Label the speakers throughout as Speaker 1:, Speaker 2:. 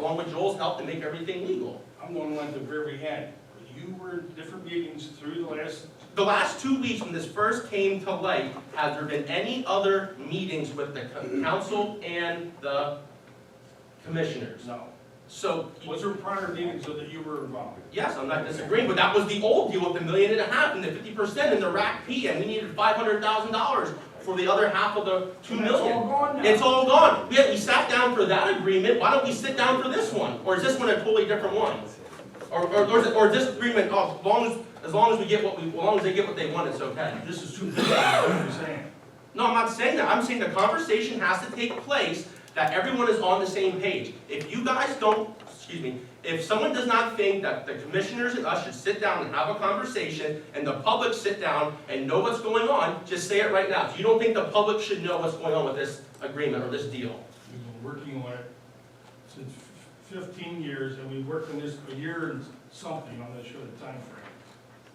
Speaker 1: along with Joel's help to make everything legal.
Speaker 2: I'm going like the very end. You were at different meetings through the last,
Speaker 1: The last two weeks when this first came to light, has there been any other meetings with the co- council and the commissioners?
Speaker 2: no.
Speaker 1: So,
Speaker 2: Was there prior meetings so that you were involved?
Speaker 1: yes, I'm not disagreeing, but that was the old deal with the million and a half and the fifty percent and the rack P, and we needed five hundred thousand dollars for the other half of the two
Speaker 2: That's all
Speaker 1: million.
Speaker 2: gone now.
Speaker 1: It's all gone. We, we sat down for that agreement, why don't we sit down for this one? Or is this one a totally different one? Or, or, or is it- or this agreement, oh, as long as, as long as we get what we, as long as they get what they want, it's okay.
Speaker 2: This is too big, what you're saying.
Speaker 1: No, I'm not saying that. I'm saying the conversation has to take place that everyone is on the same page. If you guys don't, excuse me, if someone does not think that the commissioners and us should sit down and have a conversation and the public sit down and know what's going on, just say it right now. If you don't think the public should know what's going on with this agreement or this deal.
Speaker 2: We've been working on it since fifteen years, and we worked on this a year and something on this short timeframe.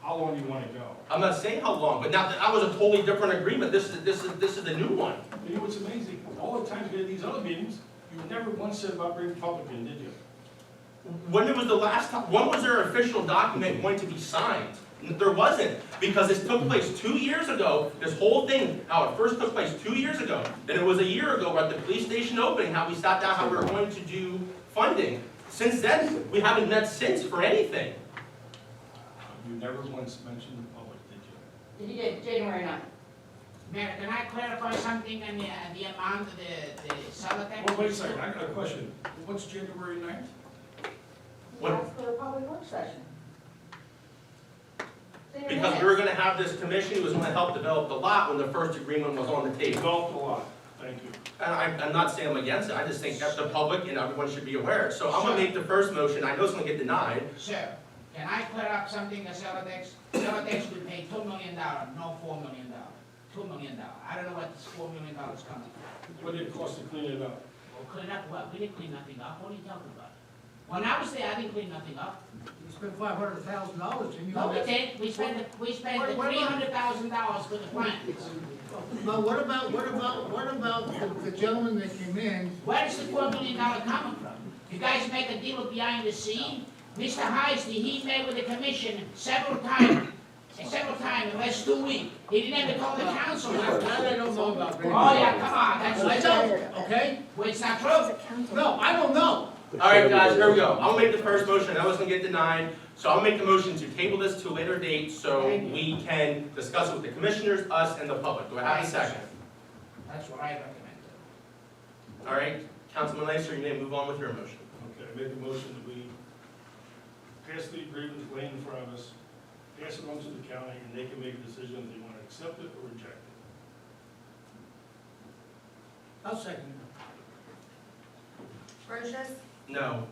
Speaker 2: How long do you wanna go?
Speaker 1: I'm not saying how long, but now, that was a totally different agreement. This is, this is, this is the new one.
Speaker 2: You know what's amazing? All the times we had these other meetings, you never once said about being Republican, did you?
Speaker 1: When was the last time, when was their official document going to be signed? There wasn't, because this took place two years ago, this whole thing, how it first took place two years ago. Then it was a year ago at the police station opening, how we sat down, how we were going to do funding. Since then, we haven't met since for anything.
Speaker 2: You never once mentioned the public, did you?
Speaker 3: Did you get January ninth?
Speaker 4: Mayor, can I clarify something on the, uh, the amount of the, the solar tax?
Speaker 2: Well, wait a second, I got a question. What's January ninth?
Speaker 1: What-
Speaker 3: That's for a public work session. It's in your
Speaker 1: Because we were
Speaker 3: minutes.
Speaker 1: gonna have this commission who was gonna help develop the lot when the first agreement was on the table.
Speaker 2: Golf a lot, thank you.
Speaker 1: And I, I'm not saying I'm against it, I just think that the public and everyone should be aware. So I'm gonna make the first motion, I know it's gonna get denied,
Speaker 4: Sir, can I clear up something, the solar tax, solar tax will pay two million dollars, no four million dollars. Two million dollars, I don't know what this four million dollars coming from.
Speaker 2: What did it cost to clean it up?
Speaker 4: Well, clean up what, we didn't clean nothing up, what are you talking about? When I was there, I didn't clean nothing up.
Speaker 5: You spent five hundred thousand dollars and you.
Speaker 4: No, we did, we spent, the- we spent the
Speaker 5: What- what
Speaker 4: three
Speaker 5: about-
Speaker 4: hundred thousand dollars for the plants.
Speaker 5: But what about, what about, what about the the gentleman that came in?
Speaker 4: Where is the four million dollar coming from? You guys make a deal behind the scene? Mr. Heisty, he met with the commission several times, several times in the last two weeks. He didn't even call the council.
Speaker 5: Now,
Speaker 4: last
Speaker 5: that I
Speaker 4: time.
Speaker 5: don't know about.
Speaker 4: Oh, yeah, come on, that's
Speaker 5: I
Speaker 4: what I
Speaker 5: don't, okay?
Speaker 4: Well, it's not true.
Speaker 5: No, I don't know.
Speaker 1: All right, guys, here we go. I'll make the first motion, that was gonna get denied, so I'll make the motion to table this to a later date so we can discuss it with the commissioners, us, and the public. Do I have a second?
Speaker 4: That's what I recommend.
Speaker 1: All right, Councilman Lancer, you may move on with your motion.
Speaker 2: Okay, I made the motion that we pass the agreement laying in front of us, pass it on to the county, and they can make a decision if they want to accept it or reject it.
Speaker 5: I'll second
Speaker 6: Brochus,
Speaker 1: No.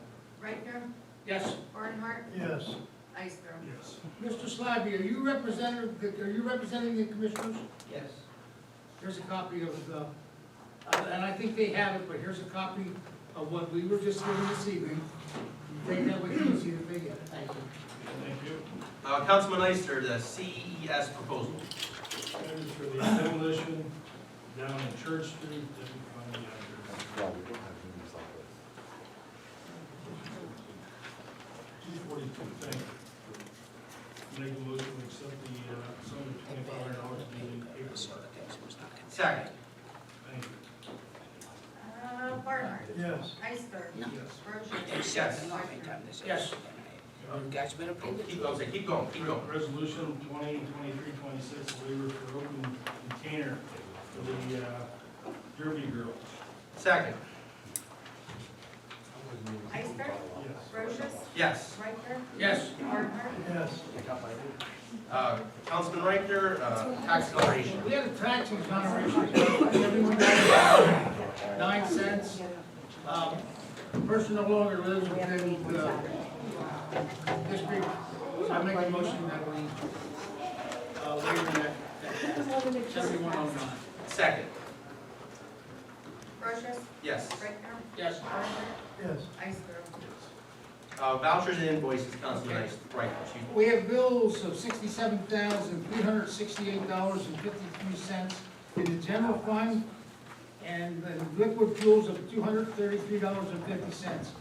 Speaker 6: Rechner,
Speaker 5: Yes.
Speaker 6: Barnhart,
Speaker 5: Yes.
Speaker 6: Ister.
Speaker 2: Yes.
Speaker 5: Mr. Slavy, are you representing, are you representing the commissioners?
Speaker 4: Yes.
Speaker 5: Here's a copy of the, uh, and I think they have it, but here's a copy of what we were just given this evening. Take that with you and see if they get it. Thank you.
Speaker 2: Thank you.
Speaker 1: Uh, Councilman Lancer, the CES proposal.
Speaker 2: Standards for the demolition down in Church Street, doesn't find the address.
Speaker 7: No, we don't have any examples.
Speaker 2: Two forty-two, thank you. Make a motion to accept the, uh, sum of twenty-five hundred dollars being paid for.
Speaker 1: Second.
Speaker 2: Thank
Speaker 6: Uh, Barnhart.
Speaker 5: Yes.
Speaker 6: Ister.
Speaker 2: you. Yes.
Speaker 1: Yes.
Speaker 6: Brochus. Rechner.
Speaker 5: Yes.
Speaker 4: You guys better prove it.
Speaker 1: Oh, Keep going, say, keep going, keep going.
Speaker 2: Resolution twenty twenty-three twenty-six, waiver for open container for the, uh, Derby Girls.
Speaker 1: Second.
Speaker 6: Ister.
Speaker 2: Yes.
Speaker 6: Brochus,
Speaker 1: Yes.
Speaker 6: Rechner,
Speaker 5: Yes.
Speaker 6: Barnhart.
Speaker 5: Yes.
Speaker 1: Uh, Councilman Reichner, uh, tax acceleration.
Speaker 5: We had a tax exoneration, everyone got nine cents. Um, Person no longer lives within the district, so I make a motion that we uh, waive that, seventy-one oh nine.
Speaker 1: Second.
Speaker 6: Brochus,
Speaker 1: Yes.
Speaker 6: Rechner,
Speaker 5: Yes.
Speaker 6: Barnhart,
Speaker 5: Yes.
Speaker 6: Ister.
Speaker 1: Uh, vouchers and invoices, Councilman Reichner, excuse me.
Speaker 5: We have bills of sixty-seven thousand, three hundred sixty-eight dollars and fifty-three cents in the general fund, and the liquid fuels of two hundred thirty-three dollars and fifty cents.